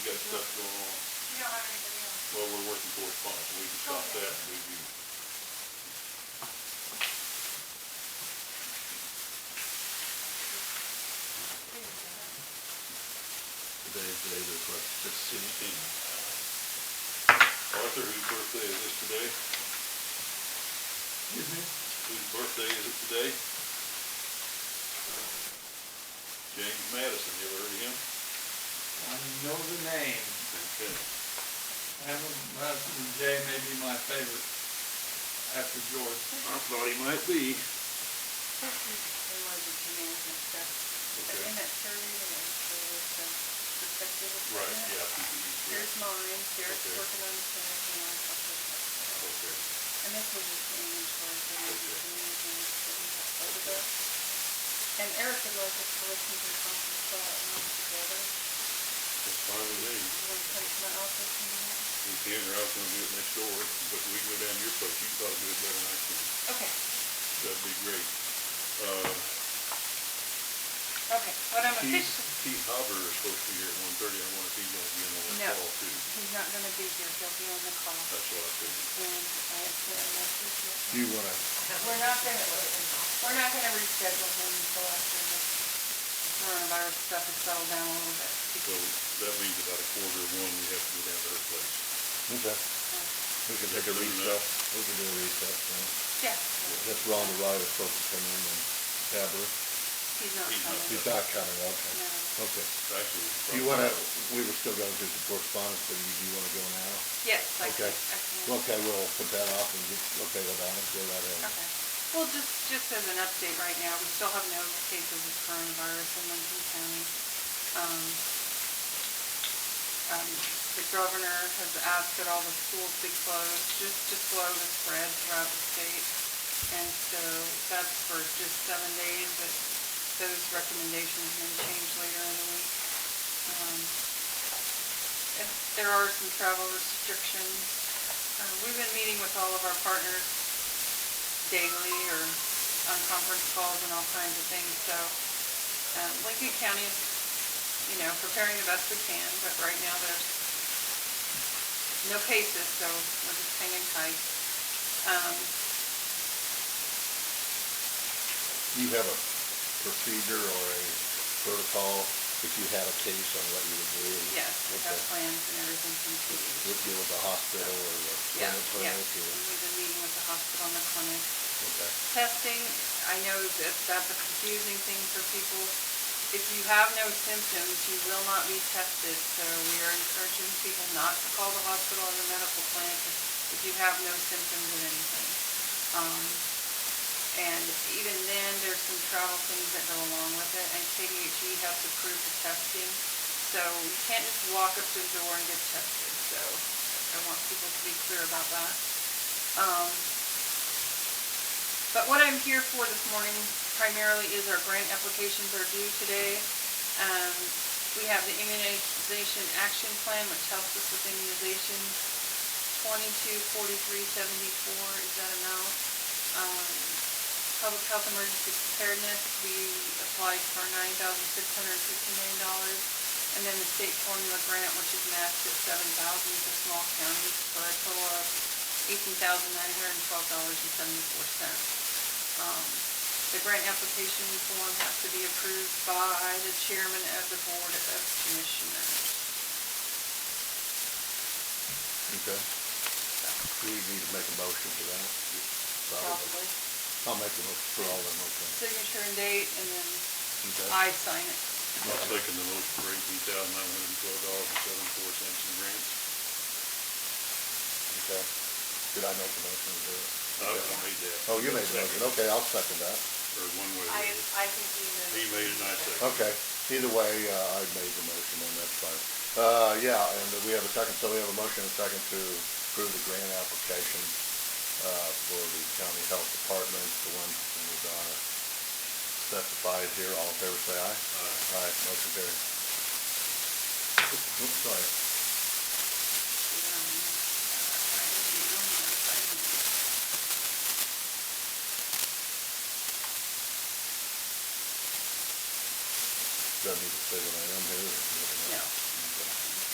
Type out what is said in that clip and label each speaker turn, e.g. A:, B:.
A: written correspondence, we can stop
B: Okay.
A: that and review.
C: Today's the day of the request, fifteen.
A: Fifteen. Uh, Arthur, whose birthday is this today?
C: Excuse me?
A: Whose birthday is it today? James Madison, you ever heard of him?
D: I know the name.
A: Okay.
D: Hammond, Madison, Jay may be my favorite after George.
C: I thought he might be.
B: They wanted to come in and stuff, but
A: Okay.
B: in that survey, they actually was the perspective of.
A: Right,
B: that.
A: yeah, he- he's here.
B: Here's mine, Derek's
A: Okay.
B: working on his, and I talked to him.
A: Okay.
B: And this was just an inventory thing, and
A: Okay.
B: And Eric would like us to listen to the conference call and all together. You
A: That's fine with me.
B: want to come to my office and do that?
A: You can, or I was gonna do it next door, but we can go down to your place, you can probably do it better than I can.
B: Okay,
A: That'd be great. Uh,
B: okay, what I'm
A: Keith,
B: officially,
A: Keith Hopper is supposed to be here at one thirty, I wonder if he's gonna be in on
B: No.
A: that call too.
B: he's not gonna be here, he'll be on the call, and
A: That's what I figured.
B: I have to, I
C: Do you wanna,
B: We're not gonna, we're not gonna reschedule him until after the coronavirus stuff has settled down a little bit.
A: So that means about a quarter of one, we have to go down to her place.
C: okay, we can take a
A: Afternoon, uh,
C: recess, we can do a recess, then.
B: Yeah,
C: That's Rhonda Wright is supposed to come in and have
B: he's
C: her.
B: not
A: He's not-
B: coming.
C: He's not coming, okay,
B: No.
C: okay.
A: Actually. it's
C: Do you
A: probably-
C: wanna, we were still gonna do some correspondence, but you, do you wanna go now?
B: Yes, I can,
C: Okay,
B: I can.
C: okay, we'll put that off and get, okay, well, Donna, go right ahead.
B: Okay. Well, just, just as an update right now, we still have no cases of coronavirus in Lincoln County. Um, um, The governor has asked that all the schools be closed, just to slow the spread throughout the state. And so that's for just seven days, but those recommendations may change later in the week. Um, and There are some travel restrictions. Uh, We've been meeting with all of our partners daily or on conference calls and all kinds of things, so um, Lincoln County is, you know, preparing the best we can, but right now there's no cases, so we're just hanging tight. Um,
C: Do you have a procedure or a protocol if you had a case on what you would do?
B: Yes, we have
C: Okay.
B: plans and everything from two
C: Would deal with the hospital or the
B: Yeah,
C: clinic or?
B: yeah, we've been meeting with the hospital and the clinic.
C: Okay.
B: Testing, I know that that's a confusing thing for people. If you have no symptoms, you will not be tested, so we are encouraging people not to call the hospital or the medical clinic if you have no symptoms of anything. Um, And even then, there's some travel things that go along with it, and KDHE E has approved the testing, so you can't just walk up to the door and get tested, so I want people to be clear about that. Um, but what I'm here for this morning primarily is our grant applications are due today. Um, we have the immunization action plan, which helps us with immunizations. Twenty-two forty-three seventy-four is that amount. Um, public health emergency preparedness, we applied for nine thousand six hundred fifty-nine dollars. And then the state formula grant, which is matched at seven thousand for small counties, for a total of eighteen thousand nine hundred and twelve dollars and seventy-four cents. Um, The grant application form has to be approved by the chairman of the board of commissioners.
C: Okay. Do you need to make a motion for that?
B: Probably.
C: I'll make a motion for all of them, okay.
B: Signature and date, and then
C: Okay.
B: I sign it.
A: I'll second the motion for eighteen thousand nine hundred and twelve dollars and seventy-four cents in grants.
C: Okay. Did I make a motion to do it?
A: I I made that.
C: Oh, you made the motion,
A: Second,
C: okay, I'll second that.
A: Or one way. or the
E: I,
A: other.
E: I think he knows.
A: He made it, and I seconded.
C: Okay, either way, uh, I made the motion and that's fine. Uh, yeah, and we have a second, so we have a motion and a second to approve the grant application, uh, for the county health department, the one that was, uh, specified here, all in favor, say aye.
A: Aye.
C: Aye, motion carried. Oops, sorry.
B: Um,